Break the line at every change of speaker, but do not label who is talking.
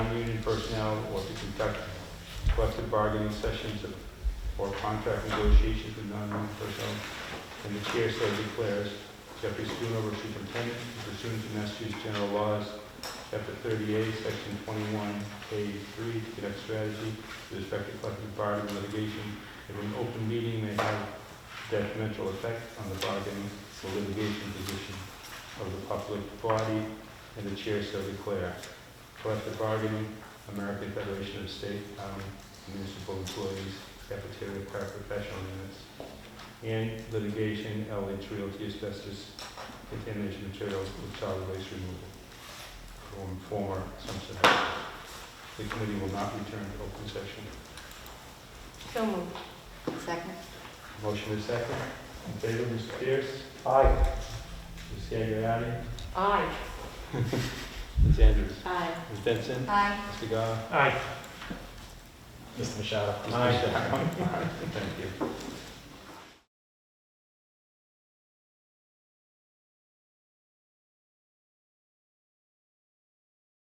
personnel or to conduct collective bargaining sessions of- or contract negotiations with non-union personnel. And the chair so declares Jeffrey Schoonover, superintendent, pursuant to Massachusetts General Laws, Chapter 38, Section 21A3, to conduct strategy with respect to collective bargaining litigation. If an open meeting may have detrimental effect on the bargaining or litigation position of the public body, and the chair so declare. Collective bargaining, American Federation of State um, Municipal Employees, Cafeteria Paraprofessional Units, and litigation, LH Realty Asbestos Contamination Materials with Solid Waste Removal from former Assumption House. The committee will not return to open session.
So moved. Second.
Motion is second. In favor, Mr. Pierce? Aye. Ms. Gagliardi?
Aye.
Ms. Andrews?
Aye.
Ms. Benson?
Aye.
Mr. Goff?
Aye. Mr. Machado.
Aye. Thank you.